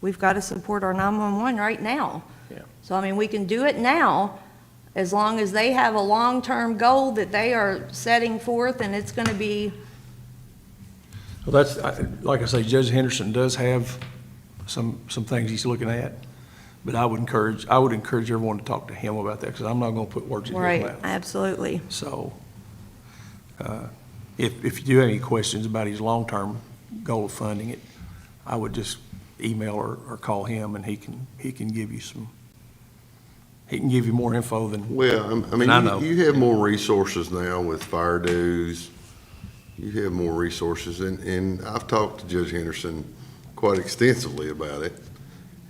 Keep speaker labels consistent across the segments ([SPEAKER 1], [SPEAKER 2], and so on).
[SPEAKER 1] we've got to support our 911 right now.
[SPEAKER 2] Yeah.
[SPEAKER 1] So, I mean, we can do it now, as long as they have a long-term goal that they are setting forth, and it's going to be,
[SPEAKER 2] Well, that's, I- like I say, Judge Henderson does have some, some things he's looking at, but I would encourage, I would encourage everyone to talk to him about that, because I'm not going to put words in his
[SPEAKER 1] right,
[SPEAKER 2] mouth.
[SPEAKER 1] absolutely.
[SPEAKER 2] So, uh, if, if you do have any questions about his long-term goal of funding it, I would just email or, or call him, and he can, he can give you some, he can give you more info than,
[SPEAKER 3] Well, I'm- I
[SPEAKER 2] And I know.
[SPEAKER 3] mean, you- you have more resources now with fire dues. You have more resources, and, and I've talked to Judge Henderson quite extensively about it.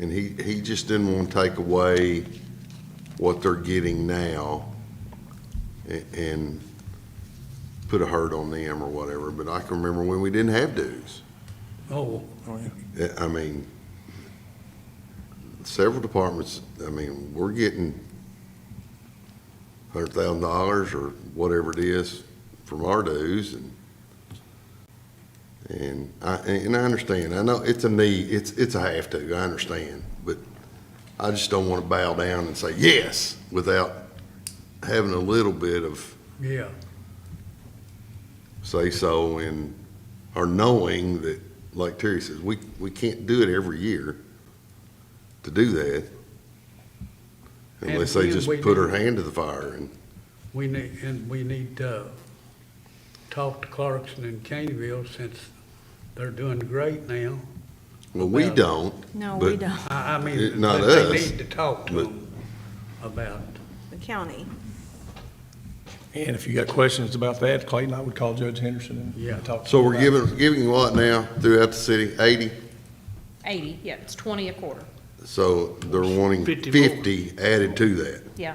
[SPEAKER 3] And he, he just didn't want to take away what they're getting now a- and put a hurt on them or whatever. But I can remember when we didn't have dues.
[SPEAKER 2] oh,
[SPEAKER 3] Uh, I mean, several departments, I mean, we're getting hundred thousand dollars or whatever it is from our dues and, and I, and I understand, I know it's a need, it's, it's a have to, I understand, but I just don't want to bow down and say yes without having a little bit of
[SPEAKER 4] Yeah,
[SPEAKER 3] say-so and, or knowing that, like Terry says, we, we can't do it every year to do that.
[SPEAKER 4] And
[SPEAKER 3] Unless they
[SPEAKER 4] we-
[SPEAKER 3] just
[SPEAKER 4] we
[SPEAKER 3] put
[SPEAKER 4] do.
[SPEAKER 3] her hand to the fire and,
[SPEAKER 4] we need, and we need to talk to Clarkson and Caneyville since they're doing great now.
[SPEAKER 3] well, we
[SPEAKER 4] Well,
[SPEAKER 3] don't.
[SPEAKER 1] No, we
[SPEAKER 3] but-
[SPEAKER 1] don't,
[SPEAKER 4] I, I
[SPEAKER 3] It-
[SPEAKER 4] mean,
[SPEAKER 3] not
[SPEAKER 4] but they
[SPEAKER 3] us,
[SPEAKER 4] need to talk to
[SPEAKER 3] but-
[SPEAKER 4] them about,
[SPEAKER 1] the county.
[SPEAKER 2] and if you got questions about that, Clayton, I would call Judge Henderson
[SPEAKER 4] Yeah.
[SPEAKER 2] and talk to him.
[SPEAKER 3] So we're
[SPEAKER 2] about it.
[SPEAKER 3] giving, giving what now throughout the city? Eighty?
[SPEAKER 5] 80, yeah, it's 20 a quarter,
[SPEAKER 3] So they're wanting fifty added to that.
[SPEAKER 5] yeah.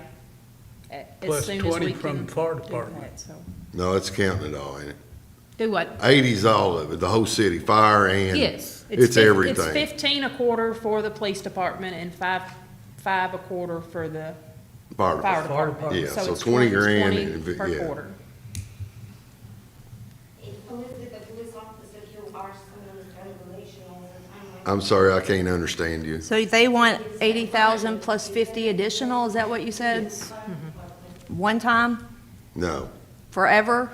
[SPEAKER 5] A- as
[SPEAKER 4] Plus
[SPEAKER 5] soon as
[SPEAKER 4] 20
[SPEAKER 5] we
[SPEAKER 4] from
[SPEAKER 5] can
[SPEAKER 4] the fire
[SPEAKER 5] do
[SPEAKER 4] department.
[SPEAKER 5] that, so.
[SPEAKER 3] No, it's counting it all, ain't it?
[SPEAKER 5] Do what?
[SPEAKER 3] Eighty's all of it, the whole city, fire and.
[SPEAKER 5] Yes.
[SPEAKER 3] It's
[SPEAKER 5] fif- It's
[SPEAKER 3] everything.
[SPEAKER 5] 15 a quarter for the police department and five, five a quarter for the
[SPEAKER 3] Fire
[SPEAKER 5] fire
[SPEAKER 3] department.
[SPEAKER 5] department.
[SPEAKER 3] Yeah, so
[SPEAKER 5] it's
[SPEAKER 3] 20
[SPEAKER 5] it's
[SPEAKER 3] grand
[SPEAKER 5] 20
[SPEAKER 3] and if it-
[SPEAKER 5] Per
[SPEAKER 3] yeah.
[SPEAKER 5] quarter.
[SPEAKER 6] Elizabeth, the police officer who are some of the relational, and I'm
[SPEAKER 3] I'm sorry, I can't understand you.
[SPEAKER 1] So they want 80,000 plus 50 additional, is that what you said? Mm-hmm. One time,
[SPEAKER 3] No.
[SPEAKER 1] forever?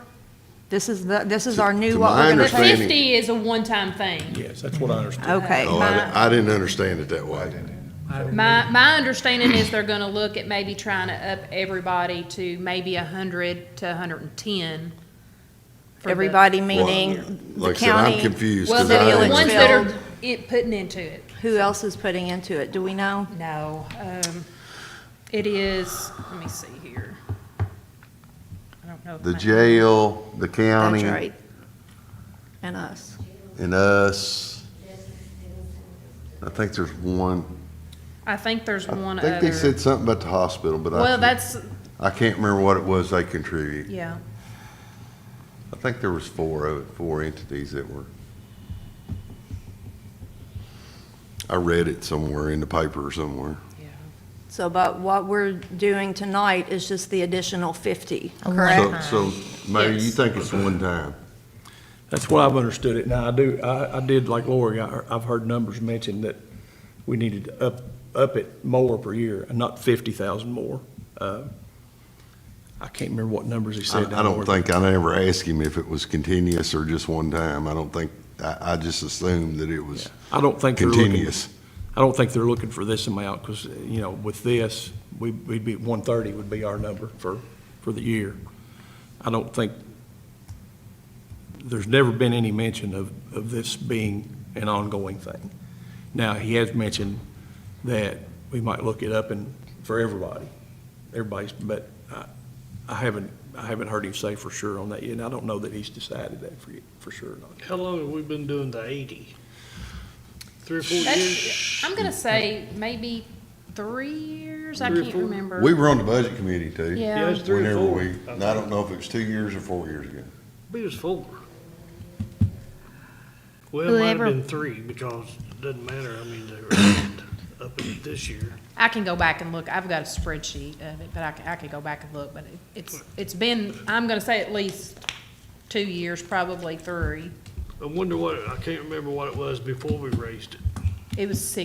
[SPEAKER 1] This is the, this is our
[SPEAKER 3] To
[SPEAKER 1] new,
[SPEAKER 3] my
[SPEAKER 1] what we're
[SPEAKER 5] The
[SPEAKER 1] going to do?
[SPEAKER 3] understanding-
[SPEAKER 5] 50 is a one-time thing.
[SPEAKER 2] Yes, that's what I understand.
[SPEAKER 1] Okay.
[SPEAKER 3] Oh,
[SPEAKER 1] my-
[SPEAKER 3] I, I didn't understand it that way.
[SPEAKER 5] My, my understanding is they're gonna look at maybe trying to up everybody to maybe 100 to 110. for the-
[SPEAKER 1] Everybody
[SPEAKER 3] Well,
[SPEAKER 1] meaning the
[SPEAKER 3] Like I said, I'm
[SPEAKER 1] county,
[SPEAKER 3] confused.
[SPEAKER 5] Well,
[SPEAKER 3] 'cause
[SPEAKER 5] the
[SPEAKER 3] I
[SPEAKER 1] Village
[SPEAKER 5] the
[SPEAKER 3] didn't-
[SPEAKER 5] ones that
[SPEAKER 1] Field.
[SPEAKER 5] are it- putting into it.
[SPEAKER 1] who else is putting into it? Do we know?
[SPEAKER 5] No, um, it is, let me see here. I don't know. if
[SPEAKER 3] The
[SPEAKER 5] my-
[SPEAKER 3] jail, the
[SPEAKER 1] That's
[SPEAKER 3] county,
[SPEAKER 1] right. And us.
[SPEAKER 3] and us. I think there's one,
[SPEAKER 5] I think there's one
[SPEAKER 3] I think they
[SPEAKER 5] other.
[SPEAKER 3] said something about the hospital, but I
[SPEAKER 5] Well,
[SPEAKER 3] can't,
[SPEAKER 5] that's,
[SPEAKER 3] I can't remember what it was they contribute.
[SPEAKER 5] yeah,
[SPEAKER 3] I think there was four of it, four entities that were. I read it somewhere in the paper or somewhere.
[SPEAKER 5] yeah.
[SPEAKER 1] So, but what we're doing tonight is just the additional 50, correct?
[SPEAKER 3] So, so maybe you
[SPEAKER 5] Yes.
[SPEAKER 3] think it's one time.
[SPEAKER 2] That's what I've understood it. Now, I do, I, I did, like Lori, I, I've heard numbers mentioned that we needed to up, up it more per year, and not fifty thousand more. Uh, I can't remember what numbers he
[SPEAKER 3] I,
[SPEAKER 2] said.
[SPEAKER 3] I don't think, I never asked him if it was continuous or just one time. I don't think, I, I just assumed that it was
[SPEAKER 2] I don't think they're looking,
[SPEAKER 3] continuous.
[SPEAKER 2] I don't think they're looking for this amount, because, you know, with this, we, we'd be, one thirty would be our number for, for the year. I don't think, there's never been any mention of, of this being an ongoing thing. Now, he has mentioned that we might look it up and, for everybody, everybody's, but I, I haven't, I haven't heard him say for sure on that yet, and I don't know that he's decided that for, for sure or not.
[SPEAKER 7] How long have we been doing the eighty? Three or four
[SPEAKER 5] That's,
[SPEAKER 7] years?
[SPEAKER 5] I'm gonna say maybe three years, I
[SPEAKER 7] Three or
[SPEAKER 5] can't
[SPEAKER 7] four.
[SPEAKER 5] remember.
[SPEAKER 3] We were on the budget committee too.
[SPEAKER 7] Yeah,
[SPEAKER 5] Yeah,
[SPEAKER 7] it's three or
[SPEAKER 3] Whenever
[SPEAKER 7] four.
[SPEAKER 3] we, and I don't know if it was two years or four years ago.
[SPEAKER 7] It was four. Well, it might have
[SPEAKER 8] Whoever-
[SPEAKER 7] been three because it doesn't matter. I mean, they were up in this year.
[SPEAKER 5] I can go back and look, I've got a spreadsheet of it, but I can, I could go back and look, but it- it's, it's been, I'm gonna say at least two years, probably three.
[SPEAKER 7] I wonder what, I can't remember what it was before we raised it.
[SPEAKER 5] It was six